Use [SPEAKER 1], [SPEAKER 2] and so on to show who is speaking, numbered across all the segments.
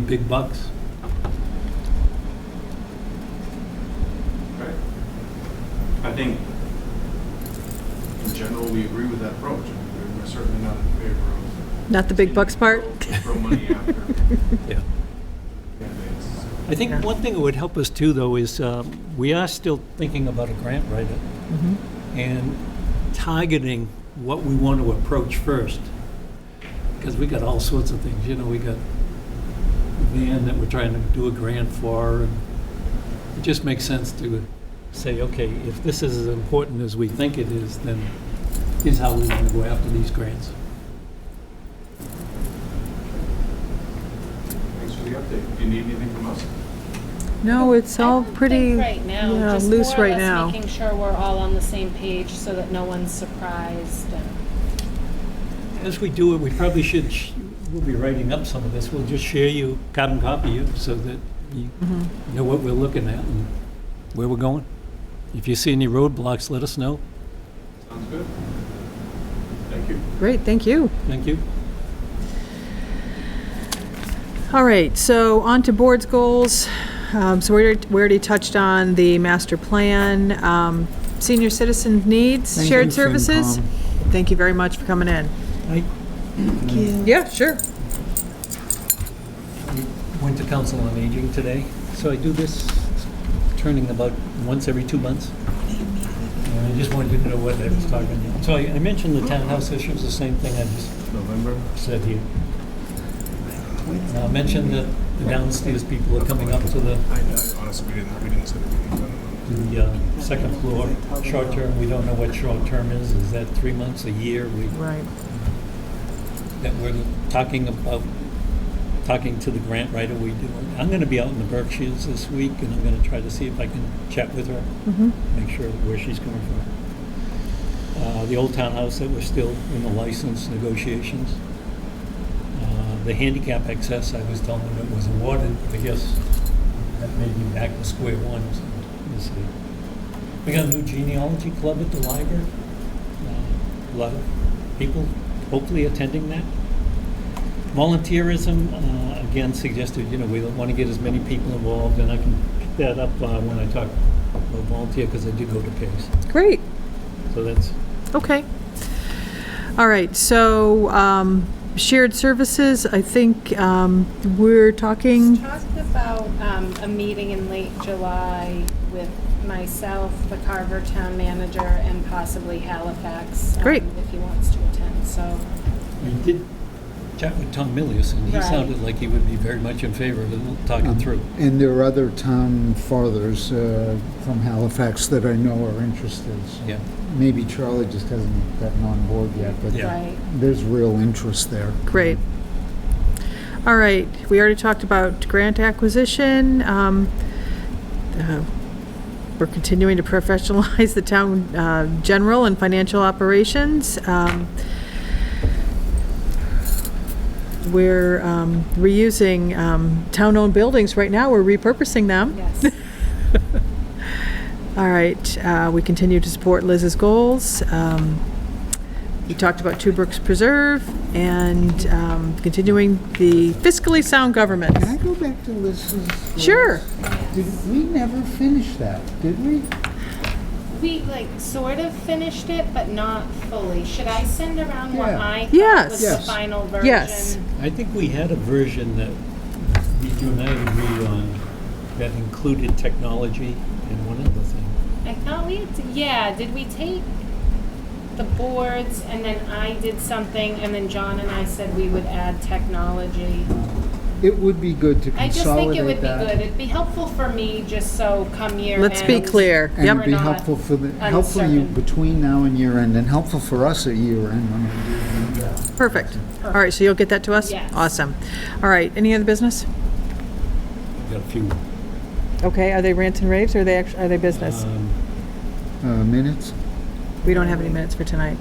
[SPEAKER 1] big bucks.
[SPEAKER 2] Right. I think, in general, we agree with that approach. We're certainly not in favor of.
[SPEAKER 3] Not the big bucks part?
[SPEAKER 2] Throw money after
[SPEAKER 1] Yeah.
[SPEAKER 2] candidates.
[SPEAKER 1] I think one thing that would help us too, though, is um, we are still thinking about a grant writer
[SPEAKER 4] Mm-hmm.
[SPEAKER 1] and targeting what we want to approach first. Because we got all sorts of things, you know, we got van that we're trying to do a grant for. and It just makes sense to say, okay, if this is as important as we think it is, then here's how we want to go after these grants.
[SPEAKER 2] Thanks for the update. Do you need anything from us?
[SPEAKER 3] No, it's all
[SPEAKER 4] I think
[SPEAKER 3] pretty,
[SPEAKER 4] right now,
[SPEAKER 3] yeah,
[SPEAKER 4] just
[SPEAKER 3] loose
[SPEAKER 4] more or
[SPEAKER 3] right
[SPEAKER 4] less
[SPEAKER 3] now.
[SPEAKER 4] Making sure we're all on the same page so that no one's surprised. and-
[SPEAKER 1] As we do it, we probably should, sh- we'll be writing up some of this. We'll just share you, carbon copy you, so that you
[SPEAKER 5] Mm-hmm.
[SPEAKER 1] know what we're looking at and where we're going. If you see any roadblocks, let us know.
[SPEAKER 2] Sounds good. Thank you.
[SPEAKER 3] Great, thank you.
[SPEAKER 1] Thank you.
[SPEAKER 3] All right, so on to board's goals. Um, So we already- we already touched on the master plan, um, senior citizen needs,
[SPEAKER 5] Thank you,
[SPEAKER 3] shared services. Thank you very much for coming in.
[SPEAKER 1] I
[SPEAKER 3] Yeah, sure.
[SPEAKER 1] went to Council on Aging today, so I do this turning about once every two months. And I just wanted you to know what I was talking about. So I I mentioned the townhouse issue is the same thing I just
[SPEAKER 2] November.
[SPEAKER 1] said here. And I mentioned that the downstairs people are coming up to the
[SPEAKER 2] I, I honestly, we didn't, we didn't set a meeting. I don't know.
[SPEAKER 1] the uh, second floor, short-term, we don't know what short-term is, is that three months, a year, we,
[SPEAKER 3] Right.
[SPEAKER 1] that we're talking about, talking to the grant writer, we do. I'm gonna be out in the Berkshires this week, and I'm gonna try to see if I can chat with her,
[SPEAKER 3] Mhm.
[SPEAKER 1] make sure where she's coming from. Uh, the old townhouse that we're still in the license negotiations. Uh, The handicap access, I was telling them it was awarded, I guess that may be back to square one, so we'll see. We got a new genealogy club at the library. Uh, A lot of people hopefully attending that. Volunteerism, uh, again suggested, you know, we want to get as many people involved, and I can pick that up uh, when I talk about volunteer, because I do go to PACE.
[SPEAKER 3] Great,
[SPEAKER 1] So that's,
[SPEAKER 3] okay. All right, so um, shared services, I think um, we're talking.
[SPEAKER 4] Talked about um, a meeting in late July with myself, the Carver Town Manager, and possibly Halifax. um,
[SPEAKER 3] Great.
[SPEAKER 4] If he wants to attend, so.
[SPEAKER 1] we did chat with Tom Millius, and he
[SPEAKER 4] Right.
[SPEAKER 1] sounded like he would be very much in favor of it, talking
[SPEAKER 5] Um,
[SPEAKER 1] through.
[SPEAKER 5] And there are other town fathers uh, from Halifax that I know are interested. so
[SPEAKER 1] Yeah,
[SPEAKER 5] Maybe Charlie just hasn't gotten on board yet, but
[SPEAKER 1] Yeah.
[SPEAKER 4] Right.
[SPEAKER 5] there's real interest there.
[SPEAKER 3] Great. All right, we already talked about grant acquisition. Um, uh, We're continuing to professionalize the town uh, general and financial operations. Um, We're um, reusing um, town-owned buildings right now, we're repurposing them.
[SPEAKER 4] Yes.
[SPEAKER 3] All right, uh, we continue to support Liz's goals. Um, We talked about Two Brooks Preserve and um, continuing the fiscally sound government.
[SPEAKER 5] Can I go back to Liz's? goals?
[SPEAKER 3] Sure.
[SPEAKER 5] Did, we never finished that, did we?
[SPEAKER 4] We like sort of finished it, but not fully. Should I send around what
[SPEAKER 5] Yeah.
[SPEAKER 4] I
[SPEAKER 3] Yes.
[SPEAKER 4] thought was
[SPEAKER 5] Yes.
[SPEAKER 4] the final version?
[SPEAKER 3] Yes.
[SPEAKER 1] I think we had a version that we- you and I agreed on that included technology and one other thing.
[SPEAKER 4] I thought we had. To, yeah. Did we take the boards and then I did something and then John and I said we would add technology.
[SPEAKER 5] It would be good to
[SPEAKER 4] I just think it would
[SPEAKER 5] consolidate
[SPEAKER 4] be
[SPEAKER 5] that.
[SPEAKER 4] good. It'd be helpful for me just so come year.
[SPEAKER 3] Let's be
[SPEAKER 4] end-
[SPEAKER 3] clear.
[SPEAKER 5] And
[SPEAKER 4] We're
[SPEAKER 5] it'd be
[SPEAKER 4] not
[SPEAKER 5] helpful for the, helpful you
[SPEAKER 4] uncertain.
[SPEAKER 5] between now and year end, and helpful for us at year end when we do
[SPEAKER 3] Perfect. All right, so you'll get that to us?
[SPEAKER 4] Yes.
[SPEAKER 3] Awesome. All right, any other business?
[SPEAKER 1] Got a few.
[SPEAKER 3] Okay, are they rants and raves or are they, act- are they business?
[SPEAKER 1] Um,
[SPEAKER 5] uh, minutes.
[SPEAKER 3] We don't have any minutes for tonight.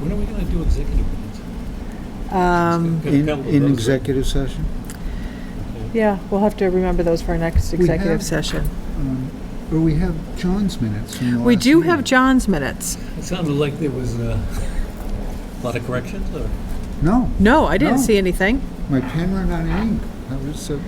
[SPEAKER 1] When are we gonna do executive minutes?
[SPEAKER 3] Um,
[SPEAKER 1] Got a
[SPEAKER 5] In,
[SPEAKER 1] couple of
[SPEAKER 5] in
[SPEAKER 1] those, right?
[SPEAKER 5] executive session?
[SPEAKER 3] Yeah, we'll have to remember those for our next
[SPEAKER 5] We
[SPEAKER 3] executive
[SPEAKER 5] have-
[SPEAKER 3] session.
[SPEAKER 5] Um, Or we have John's minutes from the
[SPEAKER 3] We
[SPEAKER 5] last
[SPEAKER 3] do
[SPEAKER 5] meeting.
[SPEAKER 3] have John's minutes.
[SPEAKER 1] It sounded like there was uh, a lot of corrections, or?
[SPEAKER 5] No,
[SPEAKER 3] No, I didn't
[SPEAKER 5] No.
[SPEAKER 3] see anything.
[SPEAKER 5] my pen ran out of ink. That was so